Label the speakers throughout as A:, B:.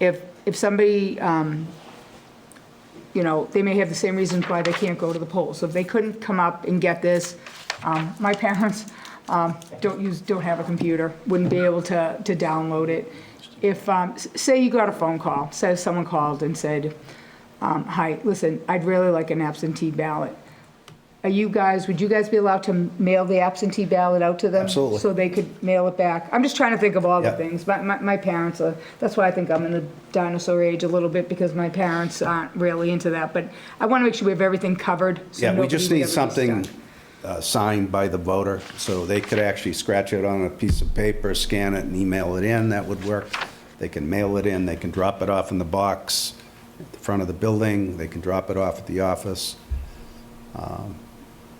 A: if, if somebody, um, you know, they may have the same reasons why they can't go to the polls. So if they couldn't come up and get this, um, my parents um, don't use, don't have a computer, wouldn't be able to, to download it. If, um, s- say you got a phone call, say someone called and said, um, hi, listen, I'd really like an absentee ballot. Are you guys, would you guys be allowed to mail the absentee ballot out to them?
B: Absolutely.
A: So they could mail it back? I'm just trying to think of all the
B: Yeah.
A: things. My, my, my parents are, that's why I think I'm in the dinosaur age a little bit, because my parents aren't really into that. But I want to make sure we have everything covered. so
B: Yeah, we
A: nobody
B: just
A: would
B: need
A: ever be
B: something
A: stuck.
B: uh, signed by the voter, so they could actually scratch it on a piece of paper, scan it, and email it in, that would work. They can mail it in, they can drop it off in the box at the front of the building, they can drop it off at the office.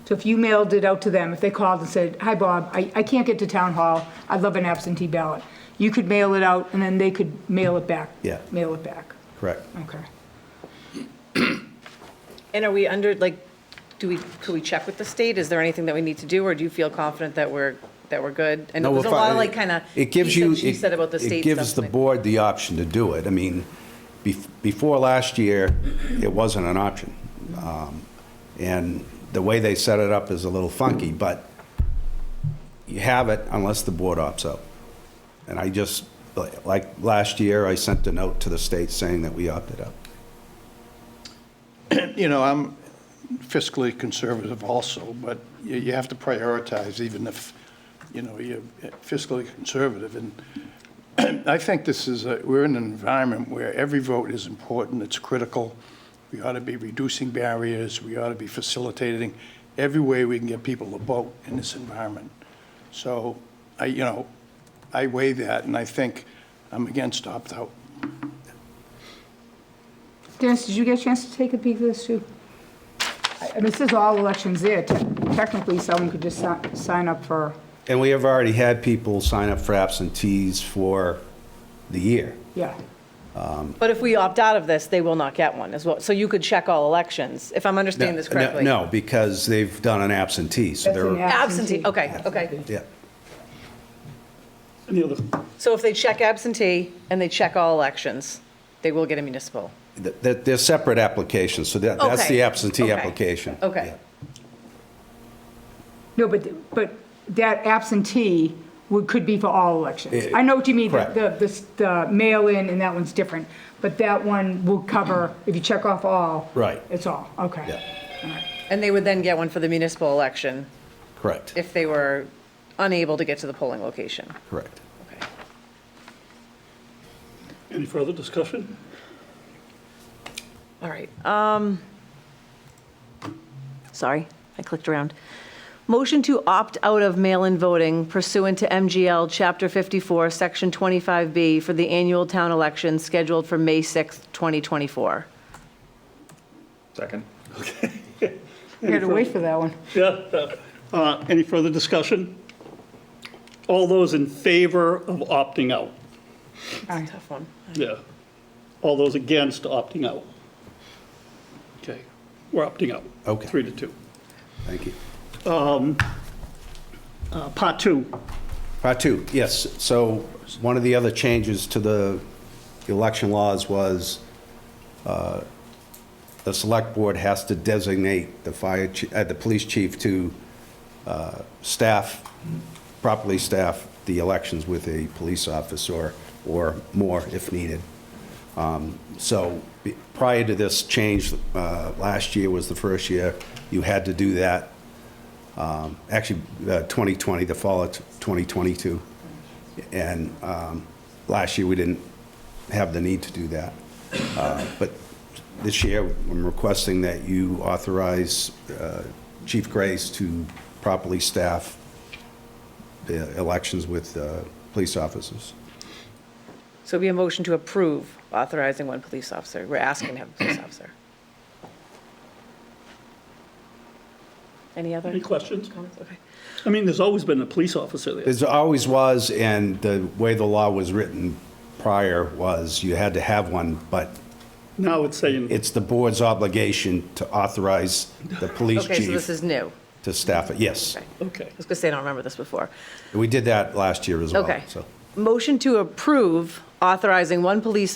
A: So if you mailed it out to them, if they called and said, hi, Bob, I, I can't get to town hall, I'd love an absentee ballot. You could mail it out and then they could mail it back.
B: Yeah.
A: Mail it back.
B: Correct.
A: Okay.
C: And are we under, like, do we, could we check with the state? Is there anything that we need to do, or do you feel confident that we're, that we're good? And
B: No,
C: there's a
B: if I-
C: lot of like, kind of,
B: It gives
C: he
B: you.
C: said, she
B: it-
C: said about the state
B: It gives the
C: stuff. like-
B: board the option to do it. I mean, bef- before last year, it wasn't an option. Um, And the way they set it up is a little funky, but you have it unless the board opts out. And I just, like- like, last year, I sent a note to the state saying that we opted out.
D: You know, I'm fiscally conservative also, but you, you have to prioritize even if, you know, you're fiscally conservative. And I think this is, a- we're in an environment where every vote is important, it's critical. We ought to be reducing barriers, we ought to be facilitating every way we can get people to vote in this environment. So I, you know, I weigh that and I think I'm against opt-out.
A: Dennis, did you get a chance to take a peek at this too? I I mean, this is all elections there. Te- Technically, someone could just si- sign up for,
B: And we have already had people sign up for absentees for the year.
A: yeah.
C: But if we opt out of this, they will not get one as well. So you could check all elections, if I'm understanding this
B: No, no,
C: correctly?
B: No, because they've done an absentee, so
A: That's an
B: they're,
C: Absentee, okay, okay.
B: yeah.
E: Any other,
C: So if they check absentee and they check all elections, they will get a municipal?
B: Th- th- They're separate applications, so that, that's
C: Okay,
B: the absentee
C: okay,
B: application.
C: okay.
B: Yeah.
A: No, but, but that absentee would, could be for all elections.
B: Eh,
A: I know what you mean,
B: correct.
A: the, the, the mail-in and that one's different, but that one will cover, if you check off all.
B: Right.
A: It's all, okay.
B: Yeah.
A: All right.
C: And they would then get one for the municipal election
B: Correct,
C: if they were unable to get to the polling location?
B: correct.
C: Okay.
E: any further discussion?
C: All right. Um, sorry, I clicked around. Motion to opt out of mail-in voting pursuant to MGL Chapter 54, Section 25B for the annual town election scheduled for May 6th, 2024.
E: Second.
A: You had to wait for that one.
E: Yeah. Uh, Any further discussion? All those in favor of opting out?
A: Aye.
C: Tough one.
E: Yeah. All those against opting out? Okay, we're opting out.
B: Okay.
E: Three to two.
B: Thank you.
E: Uh, Part two,
B: Part two, yes. So one of the other changes to the election laws was uh, the select board has to designate the fire, chi- uh, the police chief to uh, staff, properly staff the elections with a police officer or more if needed. Um, So be- prior to this change, uh, last year was the first year you had to do that. Um, Actually, uh, 2020, the fall of 2022. And um, last year, we didn't have the need to do that. Uh, But this year, I'm requesting that you authorize uh, Chief Grace to properly staff the elections with uh, police officers.
C: So it'd be a motion to approve authorizing one police officer. We're asking to have a police officer. Any other
E: any questions?
C: comments? Okay.
E: I mean, there's always been a police officer there.
B: There always was, and the way the law was written prior was you had to have one, but
E: Now it's saying,
B: it's the board's obligation to authorize the police
C: Okay, so this
B: chief
C: is new.
B: to staff it. Yes,
C: Okay. I
E: okay,
C: was going to say, I don't remember this before.
B: we did that last year as well.
C: Okay.
B: so.
C: Motion to approve authorizing one police